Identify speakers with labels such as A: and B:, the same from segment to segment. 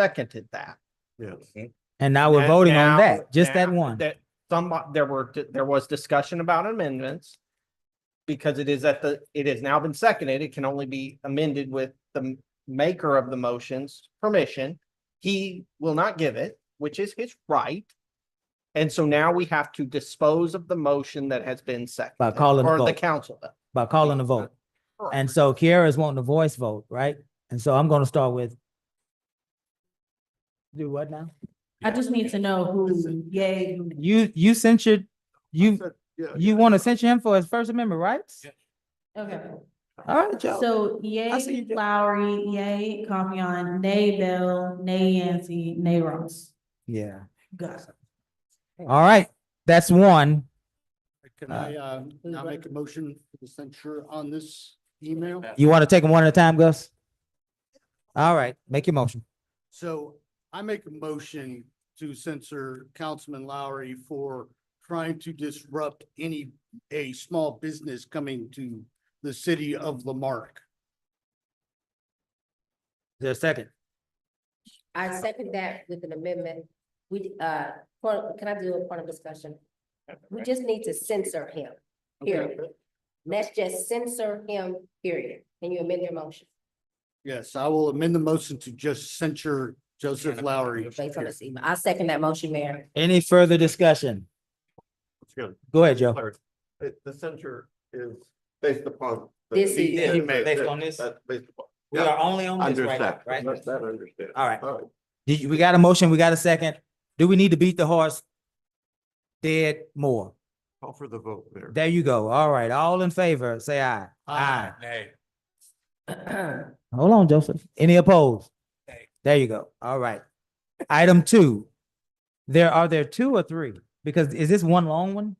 A: seconded that.
B: Yes.
C: And now we're
A: And
C: voting on
A: now-
C: that, just that
A: now
C: one.
A: That some, there were, there was discussion about amendments. Because it is at the, it has now been seconded, it can only be amended with the maker of the motion's permission. He will not give it, which is his right. And so now we have to dispose of the motion that has been seconded.
C: calling the
A: Or the
C: vote.
A: council. does.
C: by calling a vote. And so Kiara's wanting a voice vote, right? And so I'm gonna start with. Do what now?
D: I just need to know who yay, who
C: You, you censured, you,
B: said- yeah,
C: you
B: yeah.
C: wanna censure him for his First Amendment rights?
D: Okay,
C: All right, Joe.
D: so
C: see you,
D: yay
C: Joe.
D: Lowry, yay Compion, nay Bell, nay Yancy, nay Ross.
C: Yeah.
D: Got it.
C: All right, that's one.
E: Can
C: Uh,
E: I, uh, now make a motion for the censure on this email?
C: You wanna take them one at a time, Gus? All right, make your motion.
E: So I make a motion to censor Councilman Lowry for trying to disrupt any, a small business coming to the city of Lamarck.
C: There's a second.
F: I second that with an amendment. We, uh, for- can I do a point of discussion? We just need to censor him,
E: Okay.
F: period. Let's just censor him, period. Can you amend your motion
E: Yes, I will amend the motion to just censure Joseph Lowry.
F: based on this email? I second that motion, Mayor.
C: Any further discussion?
B: Excuse me.
C: Go ahead, Joe.
B: Clarity. It- The censure is based upon. the-
F: This
B: the
F: is-
B: email
C: Based
B: that-
C: on this?
B: that's based upon-
C: We are only on this right now,
B: Understand,
C: right?
B: That's that understand.
C: All right. Did you- we got a motion, we got a second. Do we need to beat the horse? Dead more.
B: Call for the vote there.
C: There you go. All right, all in favor, say aye. Aye. Hold on, Joseph. Any opposed? There you go. All right. Item two. There, are there two or three? Because is this one long one?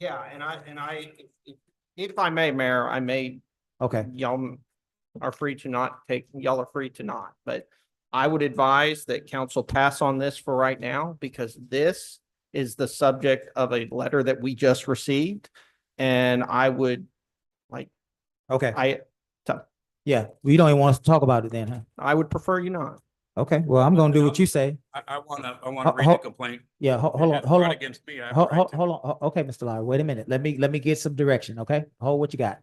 A: Yeah, and I, and I, if- if I may, Mayor, I may
C: Okay,
A: y'all are free to not take, y'all are free to not, but I would advise that council pass on this for right now because this is the subject of a letter that we just received. And I would,
C: okay.
A: I,
C: Yeah, we don't even want us to talk about it then, huh?
A: I would prefer you not.
C: Okay, well, I'm gonna do what you say.
G: I, I wanna, I
C: Ho-
G: wanna read
C: ho-
G: the complaint.
C: Yeah, ho-
G: It
C: hold on,
G: has
C: hold
G: brought
C: on.
G: Against me. I have a
C: Hold,
G: right
C: hold,
G: to-
C: hold on. Ho- Okay, Mr. Lowry, wait a minute. Let me, let me get some direction, okay? Hold what you got.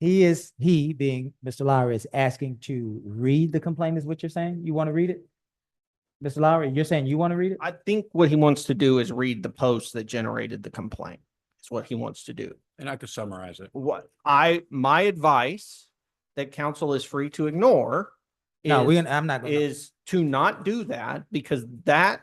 C: He is, he being Mr. Lowry is asking to read the complaint is what you're saying? You want to read it? Mr. Lowry, you're saying you want to read it?
A: I think what he wants to do is read the post that generated the complaint. Is what he wants to do.
G: And I could summarize it.
A: What I, my advice that council is free to ignore
C: No, we,
A: is,
C: gonna- I'm not going to,
A: is to not do that because that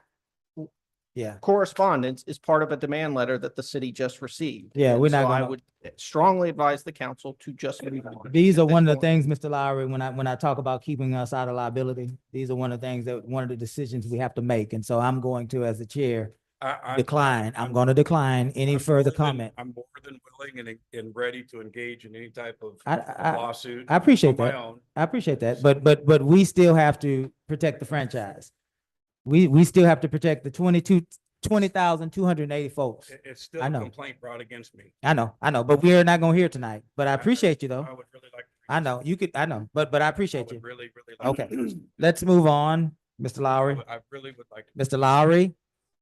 C: yeah.
A: correspondence is part of a demand letter that the city just received.
C: Yeah, we're
A: So
C: not
A: I
C: gonna-
A: would strongly advise the council to just move on.
C: These are
A: at this
C: one of the
A: point.
C: things, Mr. Lowry, when I, when I talk about keeping us out of liability, these are one of the things that, one of the decisions we have to make. And so I'm going to, as the chair,
G: I, I.
C: decline. I'm going to decline any
G: I'm
C: further
G: more than-
C: comment.
G: I'm more than willing and, and ready to engage in any type of
C: I, I,
G: lawsuit.
C: I appreciate
G: on my
C: that.
G: own.
C: I appreciate that, but, but, but we still have to protect the franchise. We, we still have to protect the twenty-two, twenty thousand, two hundred and eighty folks.
G: It- It's still
C: I
G: a
C: know.
G: complaint brought against me.
C: I know, I know, but we're not gonna hear tonight, but I appreciate you though.
G: I would really like. to read
C: I
G: this.
C: know, you could, I know, but, but I
G: I
C: appreciate
G: would
C: you.
G: Really, really. like to
C: Okay.
G: read this.
C: Let's move on, Mr.
G: I
C: Lowry.
G: would- I really would like. to-
C: Mr. Lowry,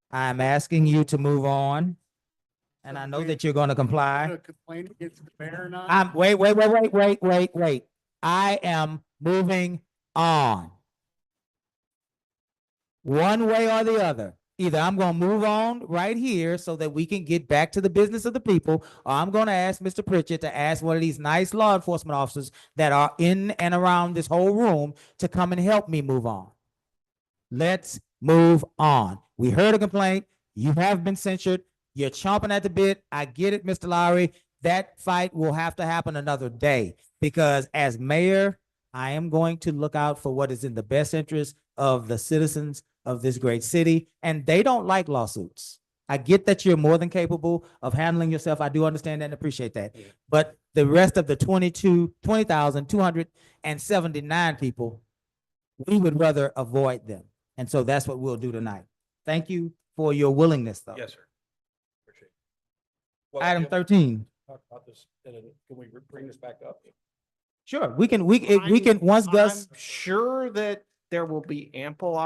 C: I'm asking you to move on. And I know that you're gonna comply.
E: Gonna Complain against the mayor or not?
C: I'm, wait, wait, wait, wait, wait, wait, wait. I am moving on. One way or the other. Either I'm gonna move on right here so that we can get back to the business of the people, or I'm gonna ask Mr. Pritchett to ask one of these nice law enforcement officers that are in and around this whole room to come and help me move on. Let's move on. We heard a complaint. You have been censured. You're chomping at the bit. I get it, Mr. Lowry. That fight will have to happen another day because as mayor, I am going to look out for what is in the best interest of the citizens of this great city, and they don't like lawsuits. I get that you're more than capable of handling yourself. I do understand that and appreciate that. But the rest of the 22, 20,279 people, we would rather avoid them. And so that's what we'll do tonight. Thank you for your willingness, though.
G: Yes, sir. Appreciate it. Well,
C: Item
G: yeah,
C: thirteen.
G: Talk about this, and then can we bring this back up?
C: Sure, we can, we, if we can, eh, once Gus,
A: I'm Sure that there will be ample